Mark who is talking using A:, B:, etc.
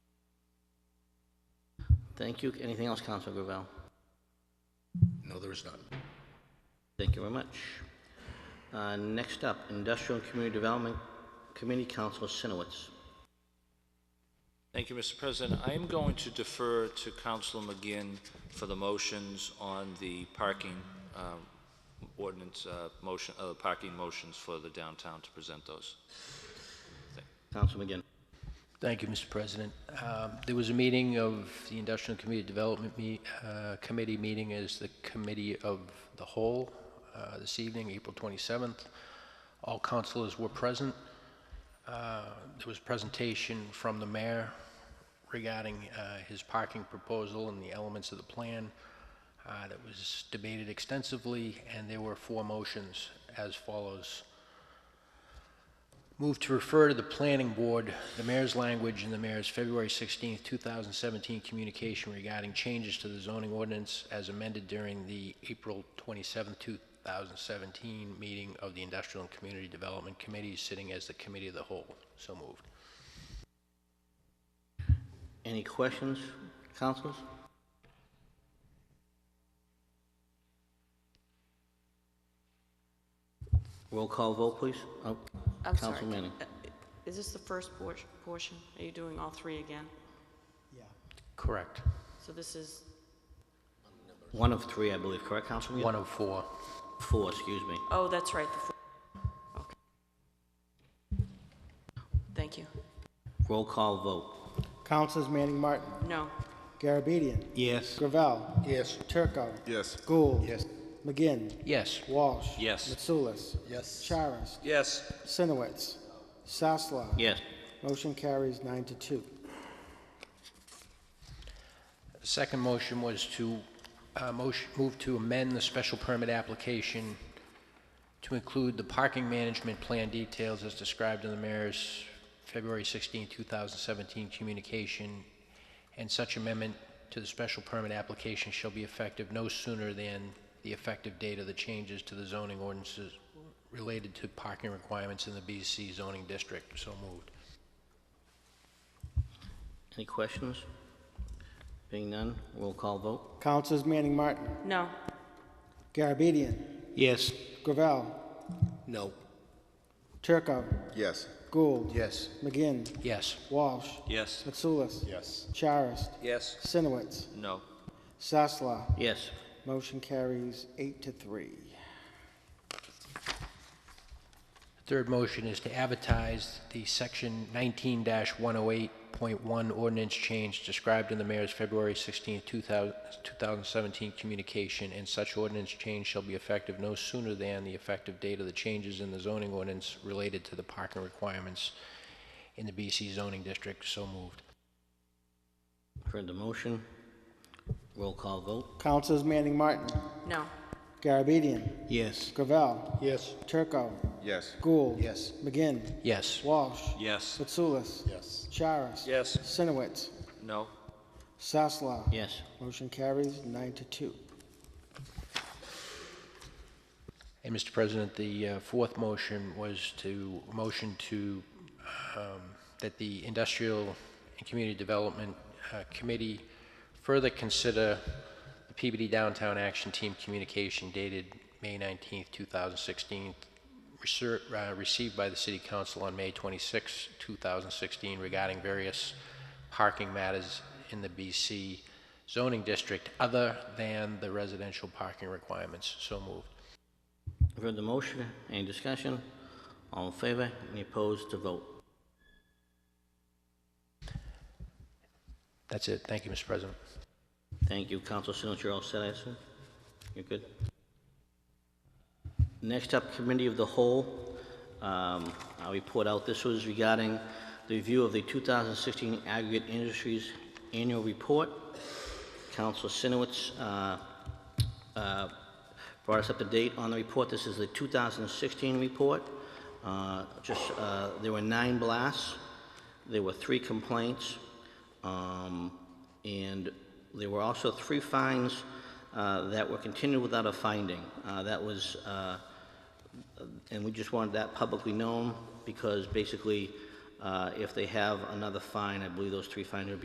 A: Thank you. Anything else, Councilor Gravel?
B: No, there is none.
A: Thank you very much. Uh, Next up, Industrial and Community Development Committee, Councilor Sinowitz.
C: Thank you, Mr. President. I am going to defer to Councilor McGinn for the motions on the parking uh, ordinance, uh, motion, uh, parking motions for the downtown to present those.
A: Councilor McGinn.
D: Thank you, Mr. President. Um, There was a meeting of the Industrial Community Development Me- uh, Committee meeting as the Committee of the Whole uh, this evening, April 27th. All councilors were present. Uh, There was a presentation from the mayor regarding uh, his parking proposal and the elements of the plan uh, that was debated extensively, and there were four motions as follows. Move to refer to the planning board the mayor's language in the mayor's February 16, 2017 communication regarding changes to the zoning ordinance as amended during the April 27, 2017 meeting of the Industrial and Community Development Committee, sitting as the committee of the whole. So moved.
A: Any questions, councilors? Roll call vote, please. Oh,
E: I'm sorry.
A: Councilor Manning.
E: uh, Is this the first por- portion? Are you doing all three again?
D: Correct.
E: So this is,
A: One of three, I believe, correct, Councilor McGinn?
D: One of four.
A: Four, excuse me.
E: oh, that's right, the four. Okay. Thank you.
A: Roll call vote.
F: Councilors Manning Martin,
E: No,
F: Garabedian,
G: Yes.
F: Gravel,
B: Yes.
F: Turco,
B: Yes.
F: Gould, McGinn,
D: Yes.
F: Walsh,
C: Yes.
F: Mitsoulas,
B: Yes.
F: Charis,
B: Yes.
F: Sinowitz, Sasla.
A: Yes.
F: Motion carries nine to two.
D: The second motion was to, uh, motion, move to amend the special permit application to include the parking management plan details as described in the mayor's February 16, 2017 communication, and such amendment to the special permit application shall be effective no sooner than the effective date of the changes to the zoning ordinances related to parking requirements in the BC zoning district. So moved.
A: Any questions? Being none, roll call vote.
F: Councilors Manning Martin,
E: no,
F: Garabedian,
G: Yes.
F: Gravel,
B: No.
F: Turco,
B: Yes.
F: Gould,
B: Yes.
F: McGinn,
D: Yes.
F: Walsh,
C: Yes.
F: Mitsoulas,
B: Yes.
F: Charis,
B: Yes.
F: Sinowitz,
C: No.
F: Sasla.
A: Yes.
F: Motion carries eight to three.
D: Third motion is to advertise the section 19-108.1 ordinance change described in the mayor's February 16, 2000 2017 communication, and such ordinance change shall be effective no sooner than the effective date of the changes in the zoning ordinance related to the parking requirements in the BC zoning district. So moved.
A: Heard the motion. Roll call vote.
F: Councilors Manning Martin,
E: no,
F: Garabedian,
G: Yes.
F: Gravel,
B: Yes.
F: Turco,
B: Yes.
F: Gould.
B: Yes.
F: McGinn,
D: Yes.
F: Walsh,
C: Yes.
F: Mitsoulas,
B: Yes.
F: Charis.
C: Yes.
F: Sinowitz,
C: No.
F: Sasla.
A: Yes.
F: Motion carries nine to two.
D: And Mr. President, the uh, fourth motion was to, motion to, um, that the Industrial and Community Development uh, Committee further consider the PBD Downtown Action Team communication dated May 19th, 2016, reser- uh, received by the City Council on May 26, 2016, regarding various parking matters in the BC zoning district other than the residential parking requirements. So moved.
A: Heard the motion. Any discussion? All in favor? Any opposed to vote?
D: That's it. Thank you, Mr. President.
A: Thank you, Council Sinowitz. You're all set, I assume? You're good? Next up, Committee of the Whole. Um, I'll report out. This was regarding the review of the 2016 Aggregate Industries Annual Report. Council Sinowitz, uh, uh, brought us up to date on the report. This is the 2016 report. Uh, Just, uh, there were nine blasts, there were three complaints, um, and there were also three fines uh, that were continued without a finding. Uh, That was uh, and we just wanted that publicly known, because basically, uh, if they have another fine, I believe those three fines would be